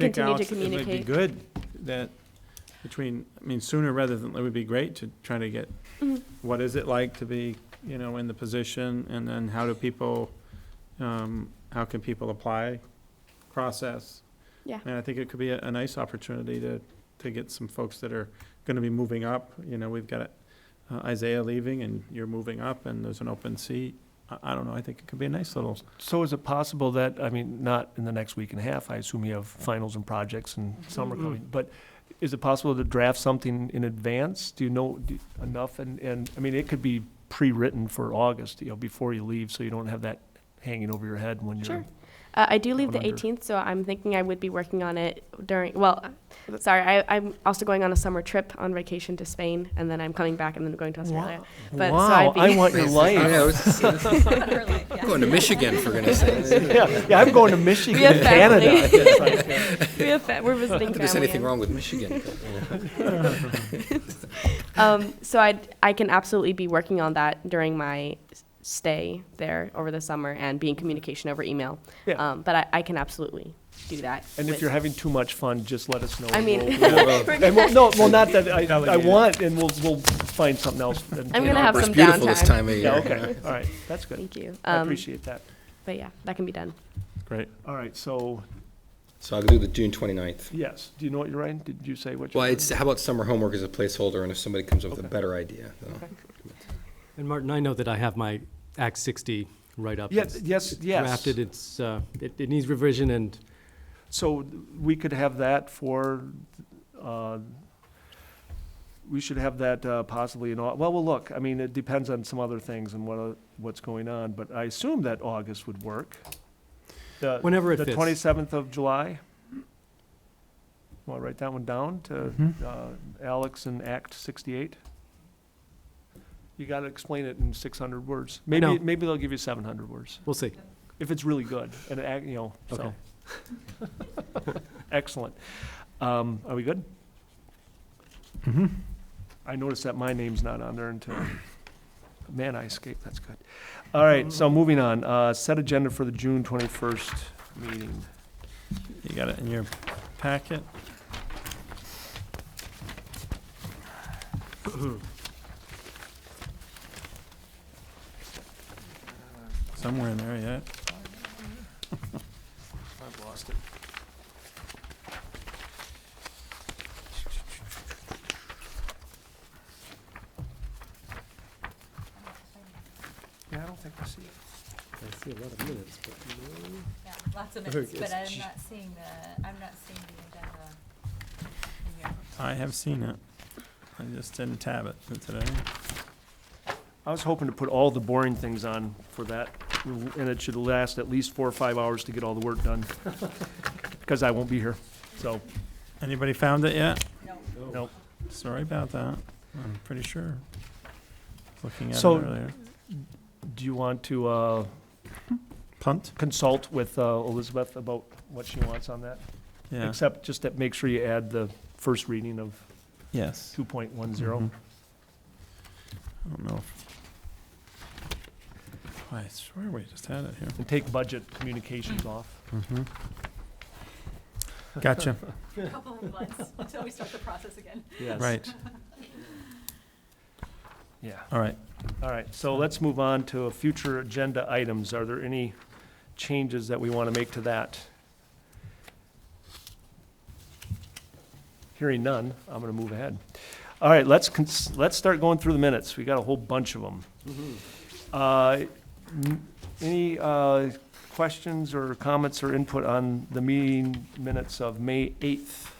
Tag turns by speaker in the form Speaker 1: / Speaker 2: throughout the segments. Speaker 1: think,
Speaker 2: Continue to
Speaker 1: Alex, It would be
Speaker 2: communicate.
Speaker 1: good that between, I mean, sooner rather than, it would be great to try to get,
Speaker 2: Mhm.
Speaker 1: what is it like to be, you know, in the position? And then how do people, um, how can people apply, process?
Speaker 2: Yeah.
Speaker 1: And I think it could be a, a nice opportunity to, to get some folks that are gonna be moving up. You know, we've got uh, Isaiah leaving and you're moving up and there's an open seat. I, I don't know, I think it could be a nice little
Speaker 3: So is it possible that, I mean, not in the next week and a half, I assume you have finals and projects and
Speaker 2: Mm-hmm.
Speaker 3: summer
Speaker 1: Mhm.
Speaker 3: coming, but is it possible to draft something in advance? Do you know do- enough? And, and, I mean, it could be pre-written for August, you know, before you leave, so you don't have that hanging over your head when you're.
Speaker 2: Sure. Uh, I do leave the
Speaker 3: Down under.
Speaker 2: 18th, so I'm thinking I would be working on it during. Well, sorry, I, I'm also going on a summer trip on vacation to Spain, and then I'm coming back, and then going to Australia. But- so
Speaker 3: Wow,
Speaker 2: I'd be-
Speaker 3: I want your life.
Speaker 4: Going to Michigan, for goodness sakes. Not
Speaker 3: Yeah, yeah, I'm going to Michigan,
Speaker 2: We have
Speaker 3: Canada.
Speaker 2: family.
Speaker 3: It's like,
Speaker 2: we have fa- we're visiting.
Speaker 4: that there's
Speaker 2: family
Speaker 4: anything
Speaker 2: and-
Speaker 4: wrong with Michigan. but, you know.
Speaker 2: Um, so I I can absolutely be working on that during my s- stay there over the summer and be in communication over email.
Speaker 3: Yeah.
Speaker 2: Um, but I, I can absolutely do that.
Speaker 3: And
Speaker 2: with-
Speaker 3: if you're having too much fun, just let us know.
Speaker 2: I
Speaker 3: and
Speaker 2: mean,
Speaker 3: we'll-
Speaker 4: Yeah, well,
Speaker 3: And we'll, no, well, not that, I, I
Speaker 1: Delegate it.
Speaker 3: want, and we'll, we'll find something else. and-
Speaker 2: I'm
Speaker 3: you
Speaker 2: gonna
Speaker 3: know.
Speaker 2: have
Speaker 4: It's
Speaker 2: some
Speaker 4: beautiful this
Speaker 2: downtime.
Speaker 4: time of
Speaker 3: Yeah,
Speaker 4: year.
Speaker 3: okay, all right, that's good.
Speaker 2: thank you.
Speaker 3: I
Speaker 2: Um,
Speaker 3: appreciate that.
Speaker 2: But yeah, that can be done.
Speaker 1: Great.
Speaker 3: All right, so,
Speaker 4: So I'll do the June 29th.
Speaker 3: yes, do you know what you're writing? Did you say what you're
Speaker 4: Well,
Speaker 3: writing?
Speaker 4: it's, how about summer homework as a placeholder, and if somebody comes up with a
Speaker 3: Okay.
Speaker 4: better idea? you know.
Speaker 5: And Martin, I know that I have my Act 60 write-up.
Speaker 3: Yes,
Speaker 5: It's
Speaker 3: yes, yes.
Speaker 5: Drafted, it's, uh, it it needs revision, and
Speaker 3: So we could have that for, uh, we should have that uh, possibly in, Au- well, well, look, I mean, it depends on some other things and what, uh, what's going on, but I assume that August would work. The-
Speaker 5: whenever it
Speaker 3: The
Speaker 5: fits.
Speaker 3: twenty-seventh of July? Want to write that one down to
Speaker 1: Mhm.
Speaker 3: uh, Alex and Act sixty-eight? You got to explain it in six hundred words. Maybe,
Speaker 5: know.
Speaker 3: maybe they'll give you seven hundred words,
Speaker 5: We'll see.
Speaker 3: if it's really good, and, it act- you know, so.
Speaker 5: Okay.
Speaker 3: Excellent. Um, Are we good? I noticed that my name's not on there until, man, I escaped, that's good. All right, so moving on, Uh, set agenda for the June twenty-first meeting.
Speaker 1: You got it in your packet? Somewhere in there, yeah.
Speaker 3: I've lost it. Yeah, I don't think I see it.
Speaker 5: I see a lot of minutes, but
Speaker 6: Yeah, lots of
Speaker 5: Or
Speaker 6: minutes,
Speaker 5: it's
Speaker 6: but I'm
Speaker 5: ch-
Speaker 6: not seeing the, I'm not seeing the agenda in here.
Speaker 1: I have seen it. I just didn't tab it for today.
Speaker 3: I was hoping to put all the boring things on for that, and it should last at least four or five hours to get all the work done, because I won't be here, so.
Speaker 1: Anybody found it yet?
Speaker 6: No.
Speaker 3: Nope.
Speaker 1: Sorry about that. I'm pretty sure. Looking at it
Speaker 3: So-
Speaker 1: earlier.
Speaker 3: Do you want to uh,
Speaker 1: Punt?
Speaker 3: consult with uh, Elizabeth about what she wants on that?
Speaker 1: Yeah,
Speaker 3: Except just that, make sure you add the first reading of
Speaker 1: yes.
Speaker 3: two point one zero.
Speaker 1: Mhm. I don't know. if- I swear we just had it here.
Speaker 3: and take budget communications off.
Speaker 1: Gotcha,
Speaker 6: A couple of months until we start the process again.
Speaker 3: Yes.
Speaker 1: right,
Speaker 3: Yeah.
Speaker 1: all right.
Speaker 3: All right, so let's move on to future agenda items. Are there any changes that we want to make to that? Hearing none, I'm going to move ahead. All right, let's, cons- let's start going through the minutes. We got a whole bunch of them. Uh, n- Any uh, questions or comments or input on the meeting minutes of May 8th?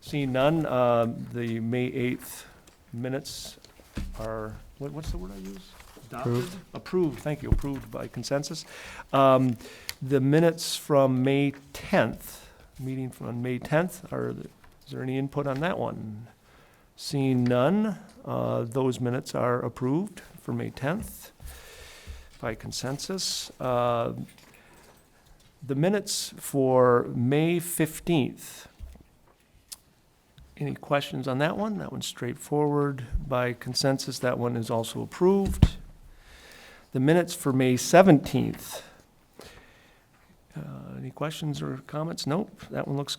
Speaker 3: Seeing none, uh, the May 8th minutes are, what, what's the word I use?
Speaker 1: Approved.
Speaker 3: Approved, thank you, approved by consensus. Um, the minutes from May tenth, meeting from on May tenth, are, th- is there any input on that one? Seeing none, uh, those minutes are approved for May tenth by consensus. Uh, the minutes for May fifteenth, any questions on that one? That one's straightforward. By consensus, that one is also approved. The minutes for May 17th. Uh, Any questions or comments? Nope, that one looks